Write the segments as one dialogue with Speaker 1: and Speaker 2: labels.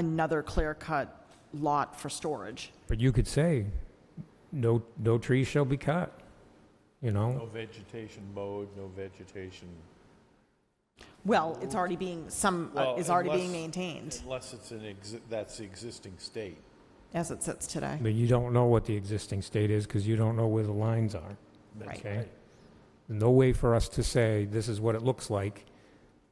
Speaker 1: another clear-cut lot for storage.
Speaker 2: But you could say, no, no trees shall be cut, you
Speaker 3: No
Speaker 2: know?
Speaker 3: vegetation mowed, no vegetation,
Speaker 1: Well, it's already being, some uh,
Speaker 3: Well,
Speaker 1: is already being
Speaker 3: unless-
Speaker 1: maintained
Speaker 3: unless it's an, exi- that's the existing state.
Speaker 1: as it sits today.
Speaker 2: But you don't know what the existing state is because you don't know where the lines are,
Speaker 1: Right.
Speaker 2: okay? No way for us to say, this is what it looks like,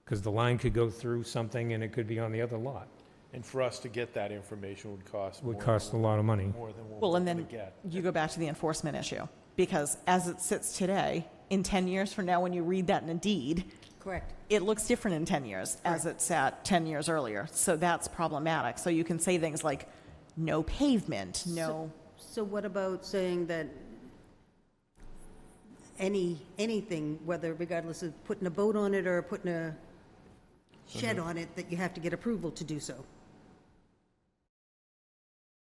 Speaker 2: because the line could go through something and it could be on the other lot.
Speaker 3: And for us to get that information would cost more.
Speaker 2: Would cost a lot of money.
Speaker 3: More than what
Speaker 1: Well,
Speaker 3: we're
Speaker 1: and
Speaker 3: going
Speaker 1: then
Speaker 3: to get.
Speaker 1: you go back to the enforcement issue, because as it sits today, in 10 years from now, when you read that in a deed,
Speaker 4: Correct.
Speaker 1: it looks different in 10 years as it sat 10 years earlier. So that's problematic. So you can say things like, no pavement, no,
Speaker 4: So what about saying that any, anything, whether regardless of putting a boat on it or putting a shed on it, that you have to get approval to do so?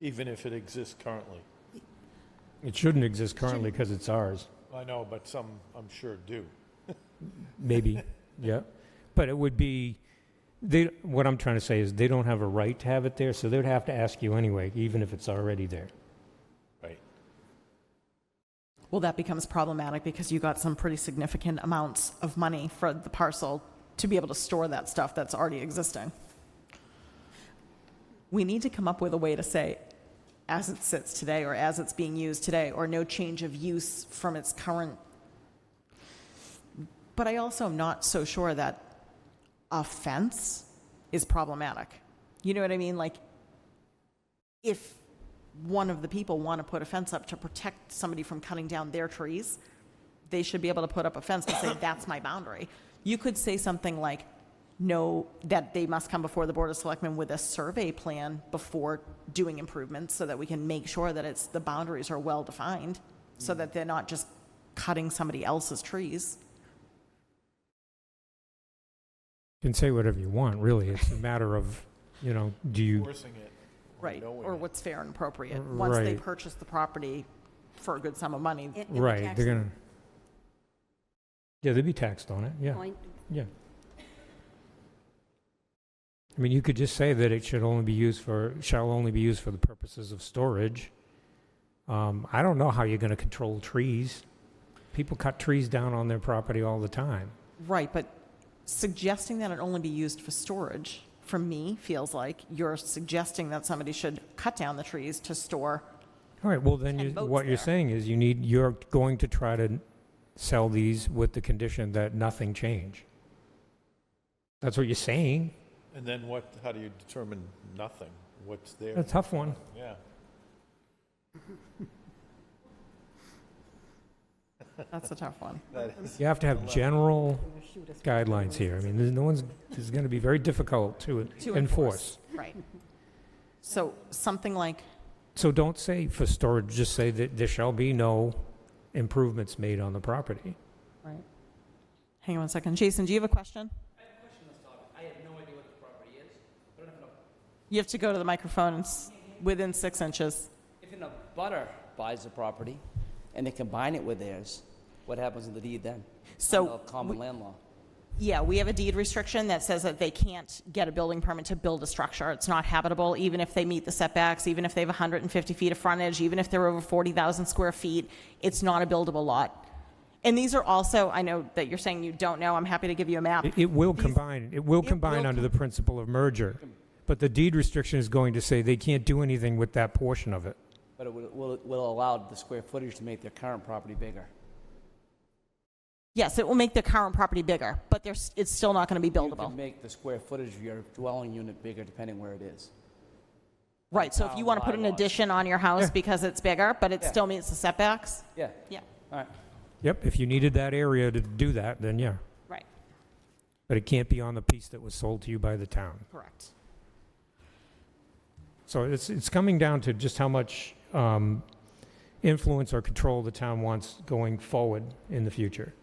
Speaker 3: Even if it exists currently.
Speaker 2: It shouldn't exist currently because it's ours,
Speaker 3: I know, but some, I'm sure, do.
Speaker 2: maybe, yeah. But it would be, they, what I'm trying to say is, they don't have a right to have it there, so they'd have to ask you anyway, even if it's already there.
Speaker 3: Right.
Speaker 1: well, that becomes problematic because you got some pretty significant amounts of money for the parcel to be able to store that stuff that's already existing. We need to come up with a way to say, as it sits today, or as it's being used today, or no change of use from its current. But I also am not so sure that a fence is problematic. You know what I mean? Like, if one of the people want to put a fence up to protect somebody from cutting down their trees, they should be able to put up a fence to say, that's my boundary. You could say something like, no, that they must come before the Board of Selectmen with a survey plan before doing improvements so that we can make sure that it's, the boundaries are well-defined, so
Speaker 3: Mm.
Speaker 1: that they're not just cutting somebody else's trees.
Speaker 2: You can say whatever you want, really. It's a matter of, you know, do you,
Speaker 3: Forcing it. or
Speaker 1: Right,
Speaker 3: knowing
Speaker 1: or
Speaker 3: it.
Speaker 1: what's fair and appropriate. Once they
Speaker 2: Right.
Speaker 1: purchase the property for a good sum of money,
Speaker 4: And- and the
Speaker 2: right,
Speaker 4: tax
Speaker 2: they're gonna, yeah, they'd be taxed on it, yeah,
Speaker 4: point-
Speaker 2: yeah. I mean, you could just say that it should only be used for, shall only be used for the purposes of storage. Um, I don't know how you're gonna control trees. People cut trees down on their property all the time.
Speaker 1: Right, but suggesting that it only be used for storage, for me, feels like you're suggesting that somebody should cut down the trees to store.
Speaker 2: All right, well, then
Speaker 1: Ten
Speaker 2: you,
Speaker 1: boats
Speaker 2: what you're
Speaker 1: there.
Speaker 2: saying is you need, you're going to try to sell these with the condition that nothing change. That's what you're saying.
Speaker 3: And then what, how do you determine nothing? What's
Speaker 2: A
Speaker 3: there?
Speaker 2: tough one.
Speaker 3: Yeah.
Speaker 1: That's a tough one.
Speaker 3: That is,
Speaker 2: You have to have general
Speaker 4: or shoot us.
Speaker 2: guidelines here. I mean, there's no one's, this is going to be very difficult to
Speaker 1: To
Speaker 2: enforce.
Speaker 1: Right. So something like,
Speaker 2: So don't say for storage, just say that there shall be no improvements made on the property.
Speaker 1: right. Hang on one second. Jason, do you have a question? I have a question on this topic. I have no idea what the property is. You have to go to the microphone and s- within six inches.
Speaker 5: If an abutter buys the property and they combine it with theirs, what happens to the deed then?
Speaker 1: So
Speaker 5: Under Common land law.
Speaker 1: Yeah, we have a deed restriction that says that they can't get a building permit to build a structure. It's not habitable, even if they meet the setbacks, even if they have 150 feet of frontage, even if they're over 40,000 square feet, it's not a buildable lot. And these are also, I know that you're saying you don't know, I'm happy to give you a map.
Speaker 2: It- It will combine, it will combine under the principle of merger. But the deed restriction is going to say they can't do anything with that portion of it.
Speaker 5: But it will- will, will allow the square footage to make their current property bigger.
Speaker 1: Yes, it will make the current property bigger, but there's, it's still not going to be
Speaker 5: You can
Speaker 1: buildable.
Speaker 5: make the square footage of your dwelling unit bigger depending where it is.
Speaker 1: Right, so if you want to put an
Speaker 5: bylaws.
Speaker 1: addition on your house because it's bigger, but it
Speaker 5: Yeah.
Speaker 1: still meets the setbacks?
Speaker 5: Yeah,
Speaker 1: Yeah,
Speaker 5: all right.
Speaker 2: Yep, if you needed that area to do that, then yeah.
Speaker 1: right.
Speaker 2: But it can't be on the piece that was sold to you by the town.
Speaker 1: Correct.
Speaker 2: So it's, it's coming down to just how much um, influence or control the town wants going forward in the future.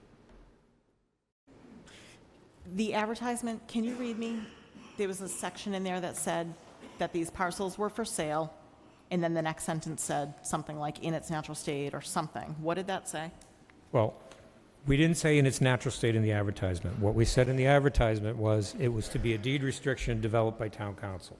Speaker 1: The advertisement, can you read me? There was a section in there that said that these parcels were for sale, and then the next sentence said something like in its natural state or something. What did that say?
Speaker 2: Well, we didn't say in its natural state in the advertisement. What we said in the advertisement was it was to be a deed restriction developed by town council.